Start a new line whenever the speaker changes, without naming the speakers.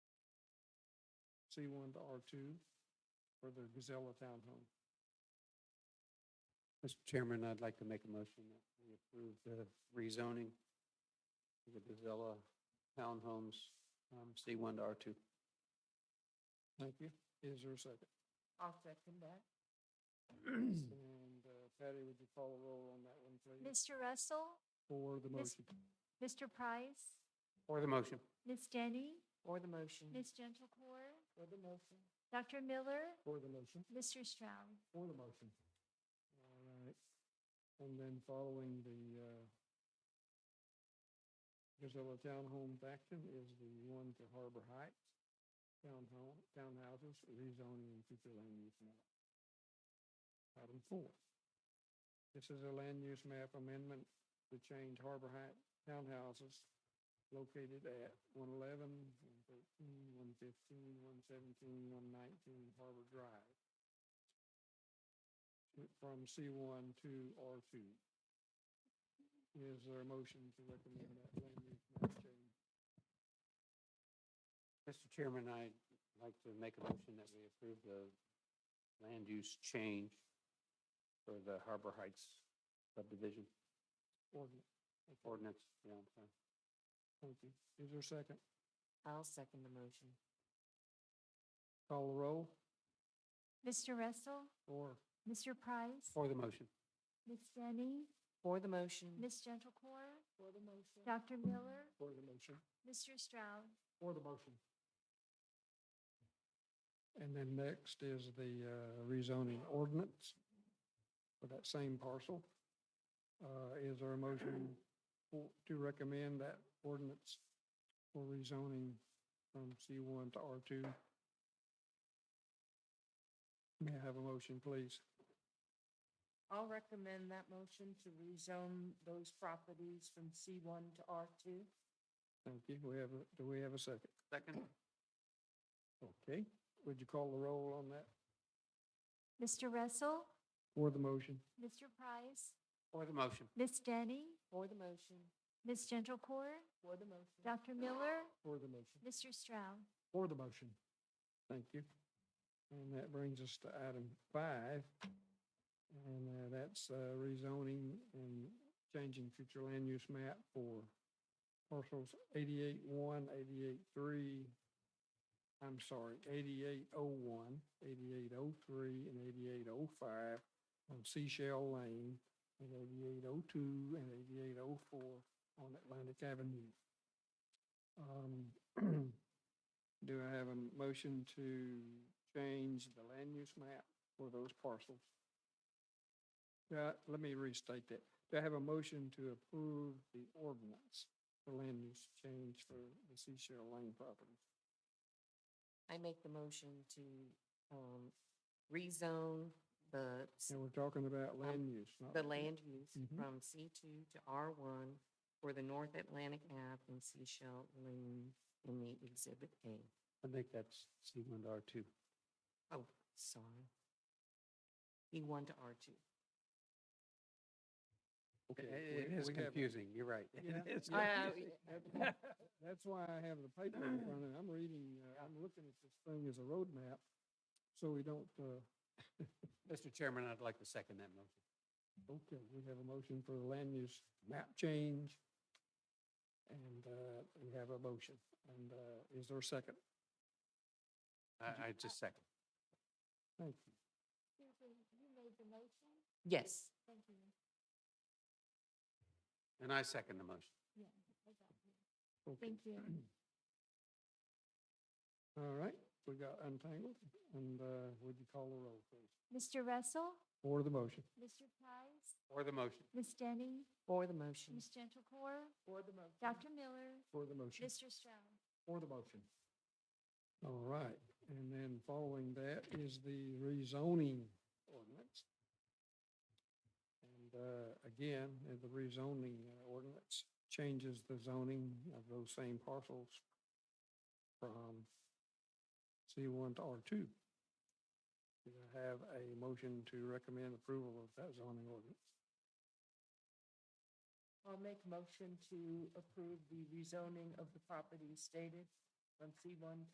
C one to R two for the Gazella Townhome.
Mr. Chairman, I'd like to make a motion that we approve the rezoning of the Gazella Townhomes, um, C1 to R2.
Thank you. Is there a second?
I'll second that.
And uh, Patty, would you follow roll on that one, please?
Mr. Russell,
For the
Miss-
motion.
Mr. Price,
For the motion.
Ms. Denny,
For the motion.
Ms. Gentlecore,
For the motion.
Dr. Miller,
For the motion.
Mr. Stroud.
For the motion. All right. And then following the uh, Gazella Townhome Faction is the one to Harbor Heights Townhome, Townhouses, rezoning and future land use map. Item four. This is a land use map amendment to change Harbor Heights Townhouses located at 111, 113, 115, 117, 119 Harbor Drive from C1 to R2. Is there a motion to recommend that land use map change?
Mr. Chairman, I'd like to make a motion that we approve the land use change for the Harbor Heights subdivision
ordinance? Okay,
ordinance. Yeah, I'm sorry.
Thank you. Is there a second?
I'll second the motion.
Call the roll
Mr. Russell,
or
Mr. Price,
For the motion.
Ms. Denny,
For the motion.
Ms. Gentlecore,
For the motion.
Dr. Miller,
for the motion?
Mr. Stroud.
For the motion. And then next is the uh, rezoning ordinance for that same parcel. Uh, Is there a motion for- to recommend that ordinance for rezoning from C1 to R2? May I have a motion, please?
I'll recommend that motion to rezone those properties from C1 to R2.
Thank you. We have, a- do we have a second?
Second.
Okay. Would you call the roll on that
Mr. Russell,
for the motion?
Mr. Price,
For the motion.
Ms. Denny,
For the motion.
Ms. Gentlecore,
For the motion.
Dr. Miller,
For the motion.
Mr. Stroud.
For the motion. Thank you. And that brings us to item five. And uh, that's uh, rezoning and changing future land use map for parcels eighty-eight one, eighty-eight three, I'm sorry, eighty-eight oh one, eighty-eight oh three, and eighty-eight oh five on Seashell Lane, and eighty-eight oh two, and eighty-eight oh four on Atlantic Avenue. Um, Do I have a motion to change the land use map for those parcels? Yeah, let me restate that. Do I have a motion to approve the ordinance for land use change for the Seashell Lane property?
I make the motion to um, rezone the, s-
And we're talking about land use, not.
Um, the land use
Mhm.
from C2 to R1 for the North Atlantic Ave and Seashell Lane in the Exhibit A.
I think that's C1 to R2.
Oh, sorry. E1 to R2.
Okay,
It it
we-
is
we have-
confusing. You're right. It
Yeah.
is
Yeah.
confusing.
Uh,
That's- That's why I have the paper in front of me. I'm reading, uh, I'm looking at this thing as a road map, so we don't, uh,
Mr. Chairman, I'd like to second that motion.
Okay, we have a motion for the land use map change. And uh, we have a motion. And uh, is there a second?
I, I just second.
Thank you.
You made the motion?
Yes.
Thank you.
And I second the motion.
Okay.
Thank you.
All right, we got untangled. And uh, would you call the roll, please?
Mr. Russell,
For the motion.
Mr. Price,
For the motion.
Ms. Denny,
For the motion.
Ms. Gentlecore,
For the motion.
Dr. Miller,
For the motion.
Mr. Stroud.
For the motion. All right, and then following that is the rezoning ordinance. And uh, again, uh, the rezoning uh, ordinance changes the zoning of those same parcels from C1 to R2. Do I have a motion to recommend approval of that zoning ordinance?
I'll make a motion to approve the rezoning of the property stated from C1 to